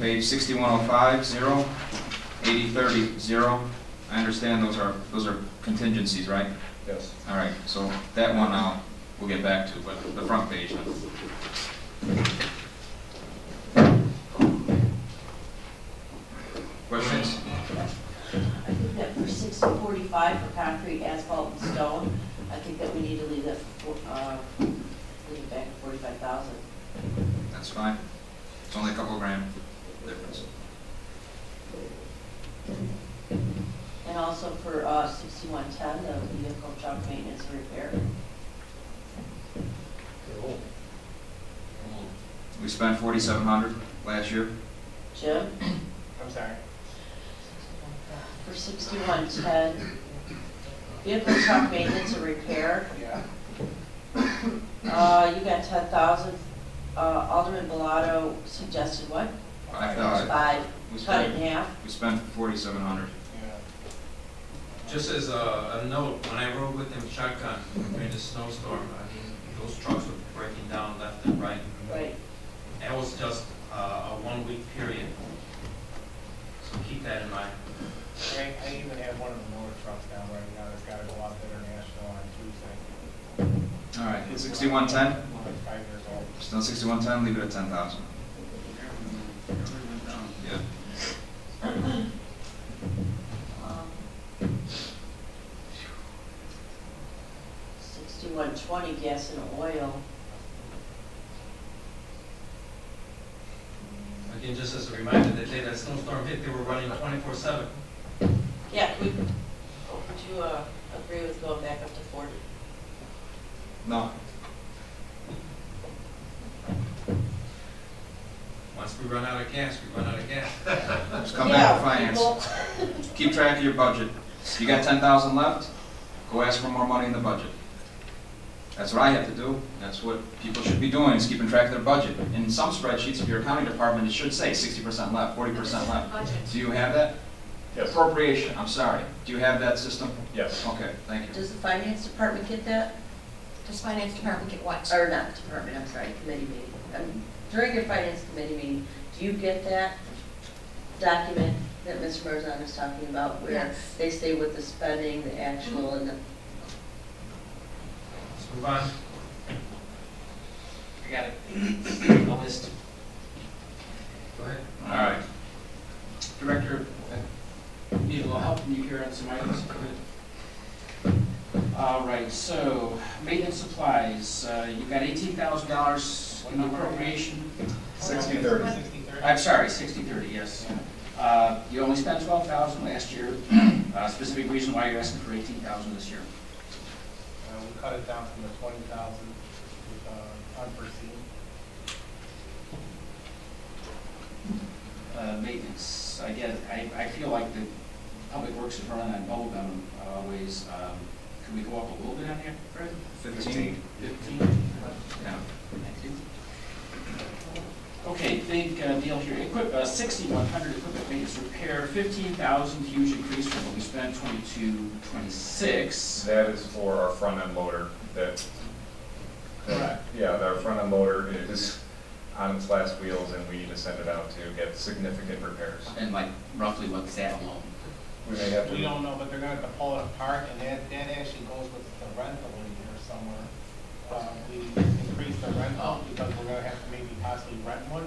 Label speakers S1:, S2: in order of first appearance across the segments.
S1: page sixty-one oh five, zero, eighty thirty, zero. I understand those are, those are contingencies, right?
S2: Yes.
S1: All right, so that one I'll, we'll get back to, but the front page. now. Questions?
S3: I think that for six to forty-five for concrete, asphalt, and stone, I think that we need to leave that, for- uh, leave it back at forty-five thousand.
S1: That's fine. It's only a couple grand difference.
S3: And also for, uh, sixty-one-ten, the vehicle junk maintenance and repair.
S1: We spent forty-seven hundred last year.
S3: Jim,
S4: I'm sorry.
S3: for sixty-one-ten, vehicle junk maintenance and repair,
S4: Yeah.
S3: uh, you got ten thousand. Uh, Alderman Bellato suggested what?
S1: Five thousand.
S3: Five,
S1: Uh, We
S3: cut it in
S1: spent,
S3: half.
S1: we spent forty-seven hundred.
S4: Yeah.
S5: Just as a, a note, when I rode with him shotgun during the snowstorm, I mean, those trucks were breaking down left and right.
S3: Right.
S5: That was just uh, a one-week period. So keep that in mind.
S4: I, I even have one of the newer trucks down right now that's gotta go out to international on Tuesday.
S1: All right, sixty-one ten?
S4: It's Five years old.
S1: Still sixty-one ten, leave it at ten thousand. Yeah.
S3: Sixty-one twenty gas and oil,
S5: Again, just as a reminder, the day that snowstorm hit, they were running twenty-four seven.
S3: yeah, we, would you, uh, agree with going back up to forty?
S1: No,
S5: Once we run out of gas, we run out of gas.
S1: just come back to finance. Keep track of your budget. You got ten thousand left, go ask for more money in the budget. That's what I have to do. That's what people should be doing, is keeping track of their budget. In some spreadsheets of your accounting department, it should say sixty percent left, forty percent left. Do you have that?
S2: Yes.
S1: Appropriation, I'm sorry. Do you have that system?
S2: Yes.
S1: Okay, thank you.
S3: Does the finance department get that,
S6: Does finance department get what?
S3: or not department, I'm sorry, committee meeting, Um, during your finance committee meeting, do you get that document that Mr. Marzano is talking about? Where
S6: Yes.
S3: they say what the spending, the actual, and the,
S5: Let's move on.
S7: I got it. A list.
S5: Go ahead.
S1: All right.
S7: Director, I need a little help from you here on some items. All right, so maintenance supplies, uh, you've got eighteen thousand dollars in appropriation.
S2: Sixty thirty.
S4: Sixty thirty.
S7: I'm sorry, sixty thirty, yes. Uh, You only spent twelve thousand last year. Uh, Specific reason why you're asking for eighteen thousand this year.
S4: Uh, we cut it down from the twenty thousand, uh, unforeseen.
S7: Uh, Maintenance, I get, it. I, I feel like the public works is running on bubble gum uh, ways. Um, Can we go up a little bit on that, Fred?
S1: Fifteen?
S7: Fifteen?
S1: Yeah.
S7: Thank you. Okay, big uh, deal here. Equip, uh, sixty-one hundred equipment maintenance repair, fifteen thousand, huge increase from what we spent, twenty-two, twenty-six.
S2: That is for our front end loader that.
S7: Correct.
S2: Yeah, our front end loader is on its last wheels and we need to send it out to get significant repairs.
S7: And like roughly what's that alone?
S2: We may have
S4: We
S2: to,
S4: don't know, but they're gonna have to pull it apart, and that, that actually goes with the rental in here somewhere. Uh, we increased the rental
S7: Oh.
S4: because we're gonna have to maybe possibly rent one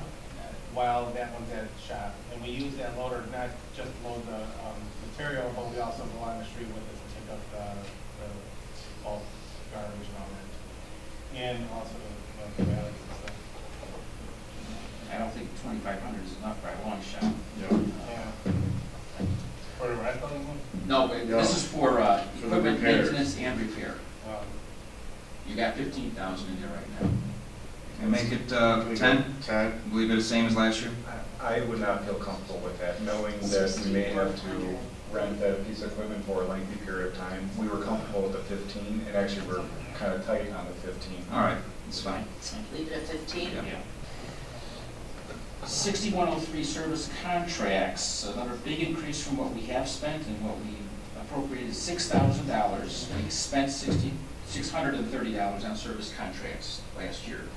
S4: while that one's at the shop. And we use that loader not just to load the, um, material, but we also go on the street with it to pick up the, the bulk garbage and all that. And also the, the bags and stuff.
S7: I don't think twenty-five hundred is enough by a long shot.
S2: you know,
S4: Yeah. For the rental one,
S7: No, it- this is for, uh,
S2: For the
S7: equipment
S2: repairs.
S7: maintenance and repair.
S4: um,
S7: You got fifteen thousand in there right now.
S1: And make it uh, ten,
S8: Ten,
S1: leave it the same as last year?
S2: I I would not feel comfortable with that, knowing that we may have to rent that piece of equipment for a lengthy period of time. We were comfortable with the fifteen and actually we're kind of tight on the fifteen.
S1: All right, it's fine.
S3: leave it at fifteen?
S1: Yeah.
S7: Sixty-one oh three service contracts, another big increase from what we have spent and what we appropriated, six thousand dollars. We spent sixty, six hundred and thirty dollars on service contracts last year.